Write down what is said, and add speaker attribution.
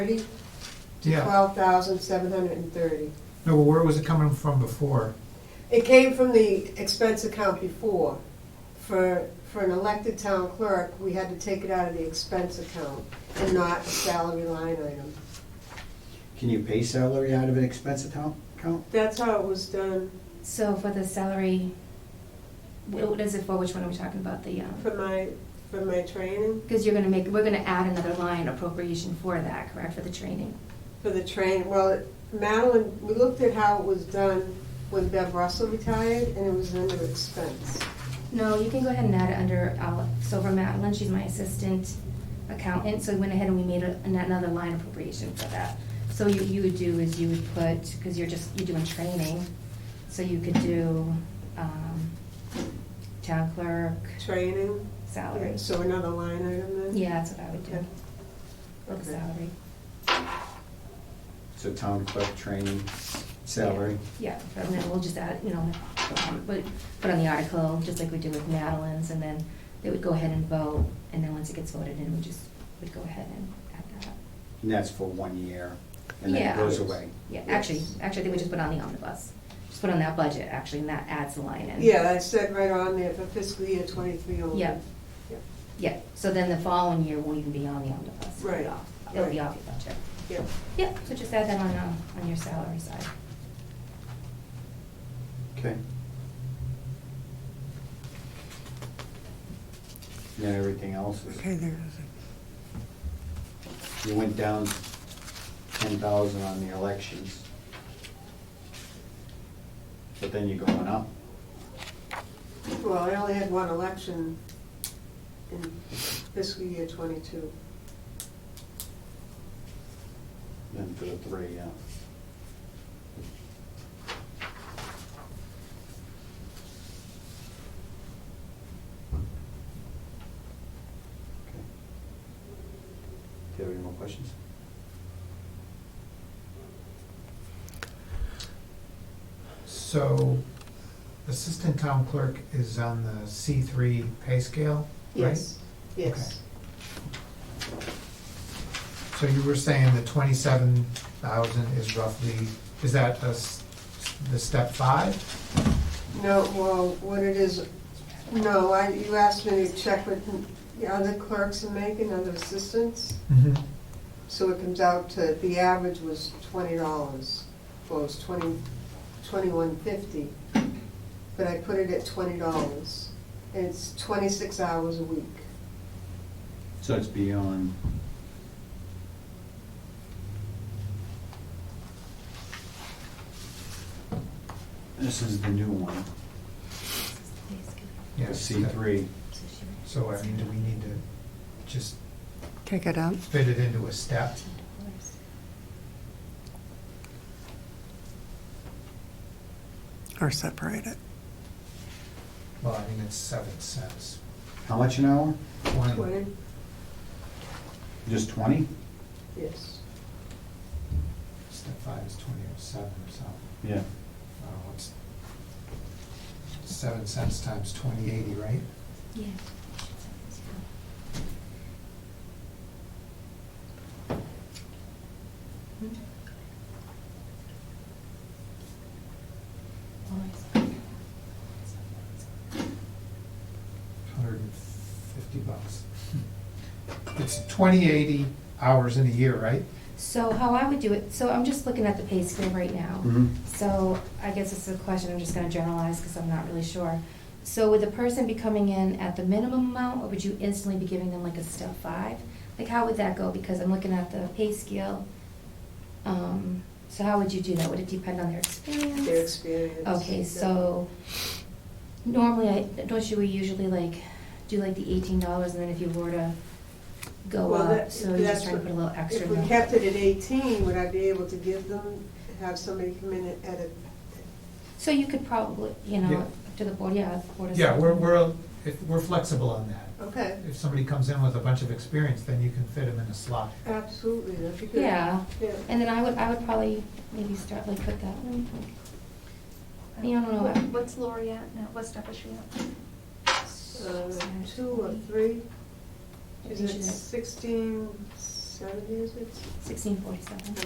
Speaker 1: thirty to
Speaker 2: Yeah,
Speaker 1: twelve thousand seven hundred and thirty.
Speaker 2: no, but where was it coming from before?
Speaker 1: It came from the expense account before. For, for an elected town clerk, we had to take it out of the expense account and not a salary line item.
Speaker 3: Can you pay salary out of an expense account? account?
Speaker 1: That's how it was done
Speaker 4: So for the salary, what is it for, which one are we talking about, the, um,
Speaker 1: for my, for my training,
Speaker 4: because you're gonna make, we're gonna add another line appropriation for that, correct, for the training?
Speaker 1: for the train. Well, Madeline, we looked at how it was done when Bev Russell retired, and it was under expense.
Speaker 4: No, you can go ahead and add it under, uh, so for Madeline, she's my assistant accountant, so we went ahead and we made a- an- another line appropriation for that. So you, you would do is you would put, because you're just, you're doing training, so you could do, um, town clerk,
Speaker 1: Training,
Speaker 4: salary.
Speaker 1: okay, so another line item then?
Speaker 4: Yeah, that's what I would do,
Speaker 1: Okay.
Speaker 4: for the
Speaker 1: Okay.
Speaker 4: salary.
Speaker 3: So town clerk training, salary.
Speaker 4: Yeah, and then we'll just add, you know, put, put on the article, just like we did with Madeline's, and then they would go ahead and vote, and then once it gets voted in, we just would go ahead and add that up.
Speaker 3: And that's for one year, and then
Speaker 4: Yeah.
Speaker 3: it goes away.
Speaker 4: Yeah, actually, actually, I think we just put on the omnibus, just put on that budget, actually, and that adds the line in.
Speaker 1: Yeah, I said right on there for fiscal year twenty-three only.
Speaker 4: Yeah.
Speaker 1: Yep.
Speaker 4: Yeah, so then the following year won't even be on the omnibus. It'll be
Speaker 1: Right,
Speaker 4: off. It'll be
Speaker 1: right.
Speaker 4: off your budget.
Speaker 1: Yep.
Speaker 4: Yeah, so just add that on, um, on your salary side.
Speaker 3: Okay. Now everything else
Speaker 5: Okay,
Speaker 3: is,
Speaker 5: there it
Speaker 3: you went down ten thousand on the elections. But then you're going up.
Speaker 1: Well, I only had one election in fiscal year twenty-two.
Speaker 3: Then for the three, yeah. Okay. Do you have any more questions?
Speaker 2: So assistant town clerk is on the C three pay scale, right?
Speaker 1: Yes, yes.
Speaker 2: So you were saying the twenty-seven thousand is roughly, is that the, s- the step five?
Speaker 1: No, well, what it is, no, I, you asked me to check with the other clerks in Macon, other assistants,
Speaker 2: Mm-hmm.
Speaker 1: so it comes out to, the average was twenty dollars. Well, it was twenty, twenty-one fifty, but I put it at twenty dollars. And it's twenty-six hours a week.
Speaker 3: So it's beyond. This is the new one, the C three.
Speaker 2: So I mean, do we need to just
Speaker 5: is. Take it out.
Speaker 2: fit it into a step?
Speaker 5: or separate it.
Speaker 2: Well, I mean, it's seven cents.
Speaker 3: How much an hour?
Speaker 2: Twenty,
Speaker 1: Twenty,
Speaker 3: Just twenty?
Speaker 1: yes.
Speaker 2: step five is twenty oh seven or something.
Speaker 3: Yeah.
Speaker 2: Oh, it's seven cents times twenty eighty, right?
Speaker 4: Yeah.
Speaker 2: Hundred and fifty bucks. It's twenty eighty hours in a year, right?
Speaker 4: So how I would do it, so I'm just looking at the pay scale right now. So I guess it's a question I'm just gonna generalize because I'm not really sure. So would the person be coming in at the minimum amount or would you instantly be giving them like a step five? Like how would that go? Because I'm looking at the pay scale. Um, so how would you do that? Would it depend on their experience?
Speaker 1: Their experience.
Speaker 4: Okay, so normally I, don't you, we usually like do like the eighteen dollars and then if you were to go
Speaker 1: Well,
Speaker 4: up,
Speaker 1: that-
Speaker 4: so you're
Speaker 1: that's
Speaker 4: just trying to put a little extra.
Speaker 1: If we
Speaker 4: in.
Speaker 1: kept it at eighteen, would I be able to give them, have somebody come in at a,
Speaker 4: So you could probably, you know,
Speaker 2: Yeah.
Speaker 4: up to the board, yeah, the board is.
Speaker 2: Yeah, we're, we're, if- we're flexible on that.
Speaker 1: okay,
Speaker 2: If somebody comes in with a bunch of experience, then you can fit them in a slot.
Speaker 1: absolutely, that'd be good.
Speaker 4: Yeah,
Speaker 1: Yeah.
Speaker 4: and then I would, I would probably maybe start like with that one. You don't know
Speaker 6: What-
Speaker 4: what-
Speaker 6: What's Lori at now? What step is she at?
Speaker 1: Uh, Two or three,
Speaker 4: I
Speaker 1: is
Speaker 4: think
Speaker 1: it
Speaker 4: she's-
Speaker 1: sixteen, s- seventy, is it?
Speaker 4: sixteen forty-seven.